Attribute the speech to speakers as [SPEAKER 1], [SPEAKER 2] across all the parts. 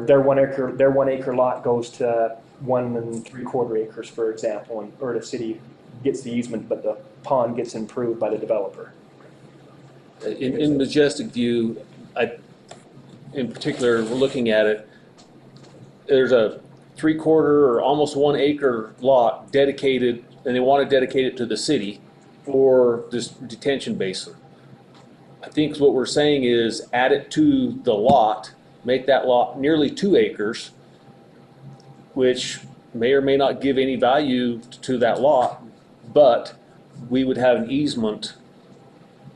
[SPEAKER 1] Their one acre, their one acre lot goes to one and three quarter acres, for example, and or the city gets the easement, but the pond gets improved by the developer.
[SPEAKER 2] In, in Majestic View, I, in particular, we're looking at it, there's a three-quarter or almost one acre lot dedicated, and they want to dedicate it to the city for this detention basin. I think what we're saying is add it to the lot, make that lot nearly two acres, which may or may not give any value to that lot, but we would have an easement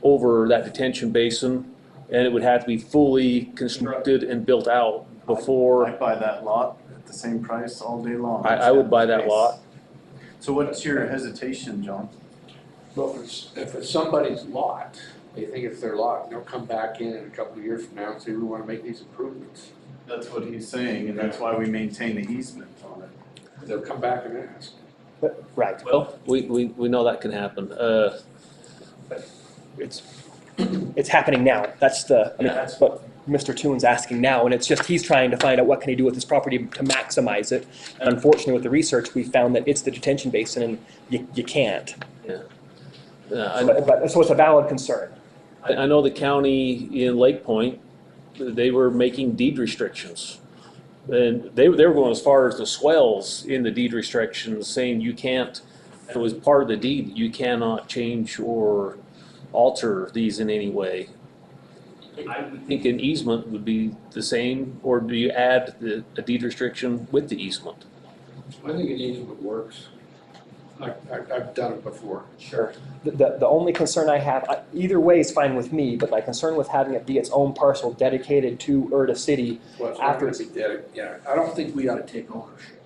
[SPEAKER 2] over that detention basin, and it would have to be fully constructed and built out before,
[SPEAKER 3] I'd buy that lot at the same price all day long.
[SPEAKER 2] I- I would buy that lot.
[SPEAKER 3] So what's your hesitation, John?
[SPEAKER 4] Well, if it's, if it's somebody's lot, they think it's their lot, and they'll come back in in a couple of years from now and say, we wanna make these improvements.
[SPEAKER 3] That's what he's saying, and that's why we maintain the easement on it.
[SPEAKER 4] They'll come back and ask.
[SPEAKER 1] Right.
[SPEAKER 2] well, we, we, we know that can happen. Uh,
[SPEAKER 1] It's, it's happening now. That's the, I mean, that's what Mr. Toon's asking now, and it's just, he's trying to find out what can he do with his property to maximize it. And unfortunately, with the research, we found that it's the detention basin, and you, you can't.
[SPEAKER 2] I,
[SPEAKER 1] But, but- so it's a valid concern.
[SPEAKER 2] uh, I I know the county in Lake Point, they were making deed restrictions. And they, they were going as far as the swells in the deed restrictions, saying you can't, it was part of the deed, you cannot change or alter these in any way. I would think an easement would be the same, or do you add the, a deed restriction with the easement?
[SPEAKER 4] I think an easement works. I, I, I've done it before.
[SPEAKER 1] Sure. The, the, the only concern I have, I- either way is fine with me, but my concern with having it be its own parcel dedicated to Urda City,
[SPEAKER 4] Well, it's
[SPEAKER 1] After
[SPEAKER 4] not gonna be dead, yeah, I don't think we ought to take ownership.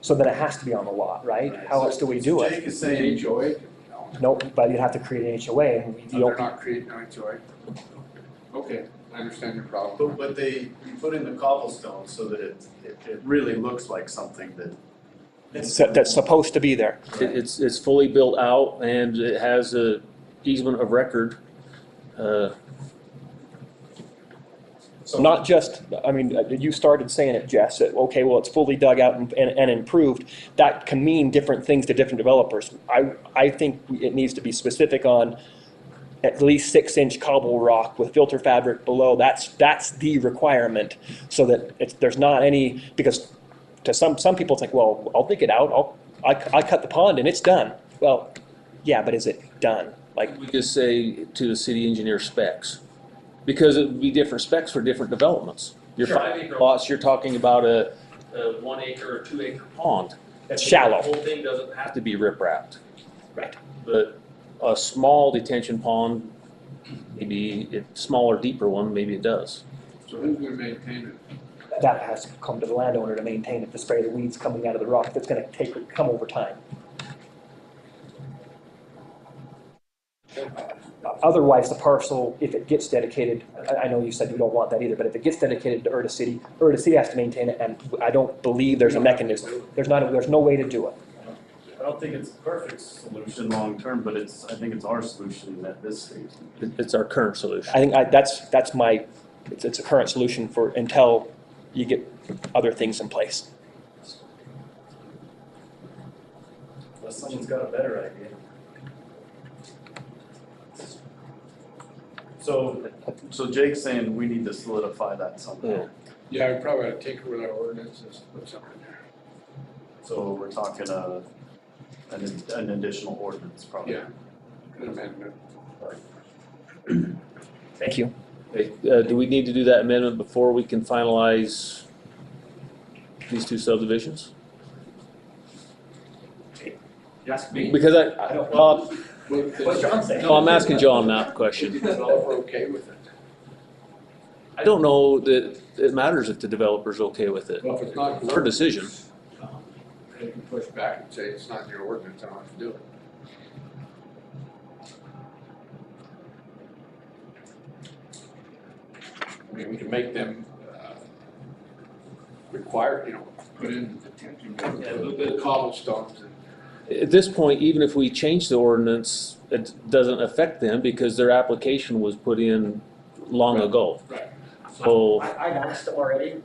[SPEAKER 1] so that it has to be on the lot, right? How else do we do it?
[SPEAKER 3] Jake is
[SPEAKER 4] Say
[SPEAKER 3] saying,
[SPEAKER 4] HOA? No,
[SPEAKER 1] Nope, but you'd have to create an HOA, and we, the
[SPEAKER 4] they're
[SPEAKER 1] only,
[SPEAKER 4] not creating an HOA. Okay, I understand your
[SPEAKER 3] but,
[SPEAKER 4] problem.
[SPEAKER 3] but they you put in the cobblestone so that it, it, it really looks like something that.
[SPEAKER 1] that's that's supposed to be there.
[SPEAKER 2] It, it's, it's fully built out and it has a easement of record. Uh,
[SPEAKER 1] So Not just, I mean, uh, you started saying it, Jess, that, okay, well, it's fully dug out and, and and improved. That can mean different things to different developers. I, I think it needs to be specific on at least six inch cobble rock with filter fabric below. That's, that's the requirement so that it's, there's not any, because to some, some people it's like, well, I'll dig it out, I'll, I, cu- I cut the pond and it's done. Well, yeah, but is it done? Like,
[SPEAKER 2] We just say to the city engineer specs, because it would be different specs for different developments. Your
[SPEAKER 1] Sure.
[SPEAKER 2] five acre lots, you're talking about a, a one acre or two acre pond.
[SPEAKER 1] It's shallow.
[SPEAKER 2] The whole thing doesn't have to be riprap.
[SPEAKER 1] Right.
[SPEAKER 2] But a small detention pond, maybe a smaller, deeper one, maybe it does.
[SPEAKER 4] So who's gonna maintain it?
[SPEAKER 1] that has to come to the landowner to maintain it, to spray the weeds coming out of the rock, that's gonna take, come over time. Otherwise, the parcel, if it gets dedicated, I, I know you said you don't want that either, but if it gets dedicated to Urda City, Urda City has to maintain it, and I don't believe there's a mechanism. There's not, a- there's no way to do it.
[SPEAKER 3] I don't think it's the perfect solution long term, but it's, I think it's our solution at this stage.
[SPEAKER 2] It- It's our current solution.
[SPEAKER 1] I think I, that's, that's my, it's, it's a current solution for, until you get other things in place.
[SPEAKER 3] Unless someone's got a better idea. So, so Jake's saying we need to solidify that somehow.
[SPEAKER 2] Yeah.
[SPEAKER 4] Yeah, we probably ought to take it with our ordinances, put something there.
[SPEAKER 3] So we're talking a, an, an additional ordinance probably.
[SPEAKER 4] Yeah, an amendment.
[SPEAKER 1] Thank you.
[SPEAKER 2] Okay, uh, Do we need to do that amendment before we can finalize these two subdivisions?
[SPEAKER 5] Yes, me.
[SPEAKER 2] Because I,
[SPEAKER 5] I don't
[SPEAKER 2] Bob,
[SPEAKER 4] But the-
[SPEAKER 5] What's John saying?
[SPEAKER 2] No, I'm asking John that question.
[SPEAKER 4] The developer okay with it.
[SPEAKER 2] I don't know that it matters if the developer's okay with it.
[SPEAKER 4] Well, if it's not.
[SPEAKER 2] It's her decision.
[SPEAKER 4] um, They can push back and say, it's not in your ordinance, I don't have to do it. I mean, we can make them, uh, require, you know, put in the detention,
[SPEAKER 5] Yeah,
[SPEAKER 4] basin,
[SPEAKER 5] we'll
[SPEAKER 4] the cobblestones and.
[SPEAKER 2] At this point, even if we change the ordinance, it doesn't affect them because their application was put in long ago.
[SPEAKER 4] Right.
[SPEAKER 2] So
[SPEAKER 5] I, I've asked already,